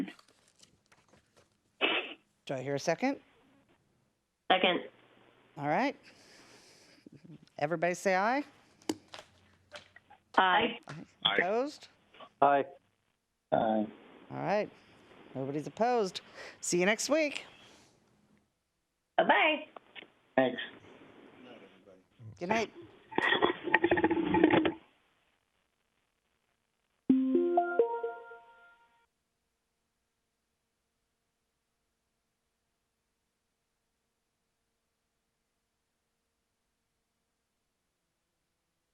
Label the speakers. Speaker 1: Do I hear a second?
Speaker 2: Second.
Speaker 1: All right. Everybody say aye.
Speaker 2: Aye.
Speaker 3: Aye.
Speaker 1: Opposed?
Speaker 4: Aye. Aye.
Speaker 1: All right. Nobody's opposed. See you next week.
Speaker 2: Bye-bye.
Speaker 4: Thanks.
Speaker 1: Good night.